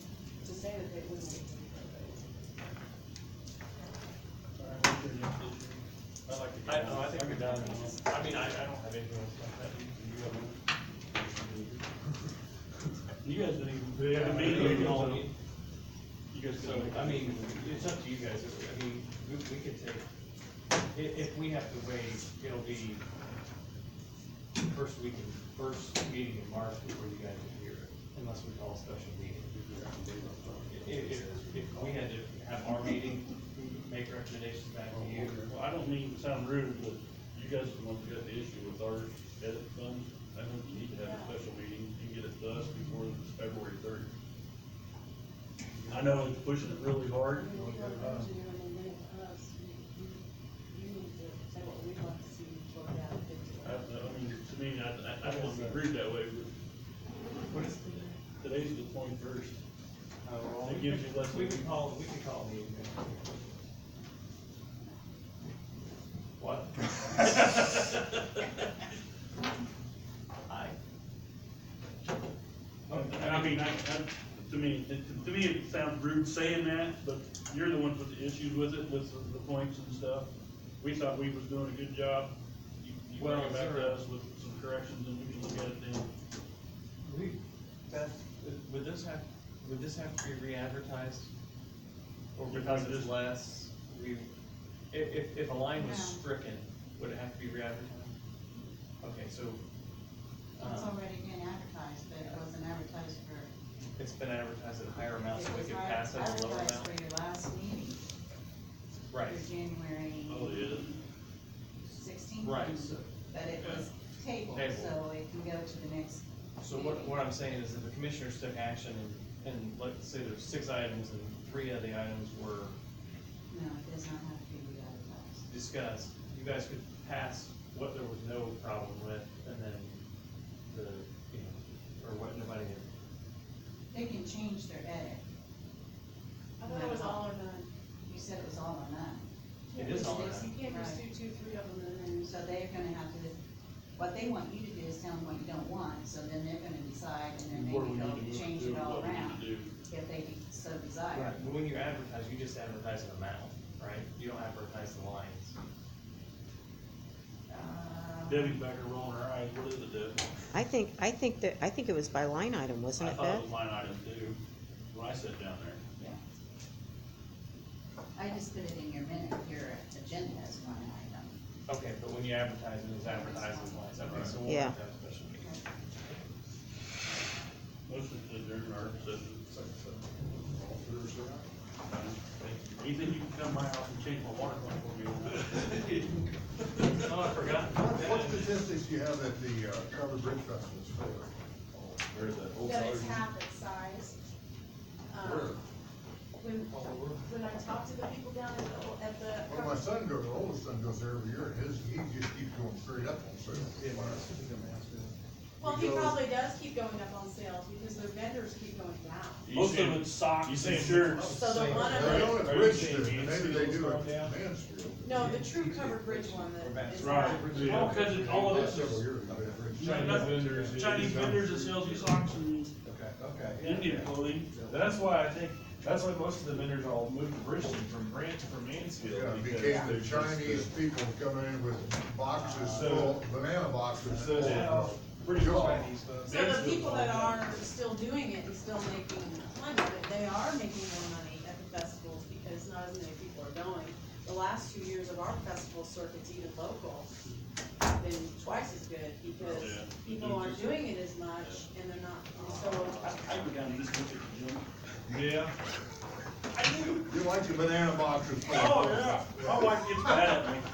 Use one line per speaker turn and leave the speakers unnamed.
said that we would.
I like to.
I, no, I think we're done.
All
I mean, I, I don't have anything else like that. Do you have one? You guys didn't even.
Yeah.
the meeting, you all-
Yeah.
You guys, so, I mean, it's up to you guys, I mean, we, we could take, i- if we have to wait, it'll be first week, in- first meeting in March before you guys are here, unless we call a special meeting. If, if, if we had to have our meeting, make recommendations back to you.
Well, I don't mean to sound rude, but you guys are the ones who got the issue with our edit fund. I think you need to have a special meeting and get it to us before this February third. I know it's pushing it really hard.
We need to go to them and then us, you, you, you need to say what we'd like to see worked out.
I, I mean, to me, I, I, I don't want to be rude that way, but
What is,
today's the twenty-first.
uh,
It gives you less-
We could call, we could call a meeting. What? Aye.
And I mean, I, I, to me, it- to me, it sounds rude saying that, but you're the ones with the issues with it, with the- the points and stuff. We thought we was doing a good job. You, you bring
Well,
it back
sure.
to us with some corrections and we can look at it then.
We, that, would this have, would this have to be re-advertised? Or
If we
because it's
just-
less, we, if, if, if a line was
No.
stricken, would it have to be re-advertised? Okay, so,
It's
um,
already been advertised, but it wasn't advertised for.
it's been advertised at a higher amount, so
It
we
was
could
not
pass it at a lower
Advertised
amount?
for your last meeting,
Right,
for January
Oh, yeah.
sixteenth.
Right, so-
But it was tabled,
Tabled.
so it can go to the next.
so what,
meeting.
what I'm saying is if the commissioners took action and, and let's say there's six items and three of the items were
No, it does not have to be re-advertised.
discussed, you guys could pass what there was no problem with, and then the, you know, or what nobody had.
They can change their edit.
I thought it was all or none.
You said it was all or none.
It is all or none.
You can't just do two, three of them and then.
So they're gonna have to, what they want you to do is tell them what you don't want, so then they're gonna decide, and then
Where we need to
maybe they'll
move
change
to,
it all
what we need
around,
to do.
if they so desire.
But when you advertise, you just advertise an amount, right? You don't advertise the lines.
Uh,
Debbie's back there rolling her eyes. What is it, Deb?
I think, I think that, I think it was by line item, wasn't
I
it,
thought
Beth?
it was line item two, when I sat down there.
Yeah. I just put it in your minute, your agenda as one item.
Okay, but when you advertise, it is advertised as lines, okay, so we'll
Yeah.
have to have a special meeting.
Motion to adjourn our session. Ethan, you can come to my house and change my water line for me.
Oh, I forgot.
What what statistics do you have that the uh, covered bridge festival is for?
There's that old
That it's
sergeant.
half its size. Um,
Where?
When, when I talk to the people down at the, at the.
Well, my son goes, our oldest son goes there every year, and his, he just keeps going straight up on sale.
Well, he
goes-
probably does keep going up on sales because the vendors keep going down.
You Most of
saying-
it's socks
you
and
saying-
shirts.
So the one of
They
the,
don't
Are
have
you
bridge street,
saying
maybe
Mansfield
they do at
was going down?
Mansfield.
no, the true covered bridge one that is
Right.
not.
All kinds of, all of
Last
this
Several
is
years, they had bridge.
Chinese
Nothing.
vendors.
Chinese vendors that sells you socks and Indian clothing.
That's why I think, that's why most of the vendors all moved to Richmond from Branch, from Mansfield.
Yeah, it
because
became
they're
the
just
Chinese people coming in with boxes full, banana boxes
So now,
full.
pretty
Go.
much.
So the people that are still doing it and still making money, but they are making more money at the festivals because not as many people are going. The last two years of our festival circuits, even local, have been twice as good because
Yeah.
people aren't doing it as much and they're not, and so.
I go down to this country gym.
Yeah.
I do.
You like the banana boxes full.
Oh, yeah. My wife gets mad at me.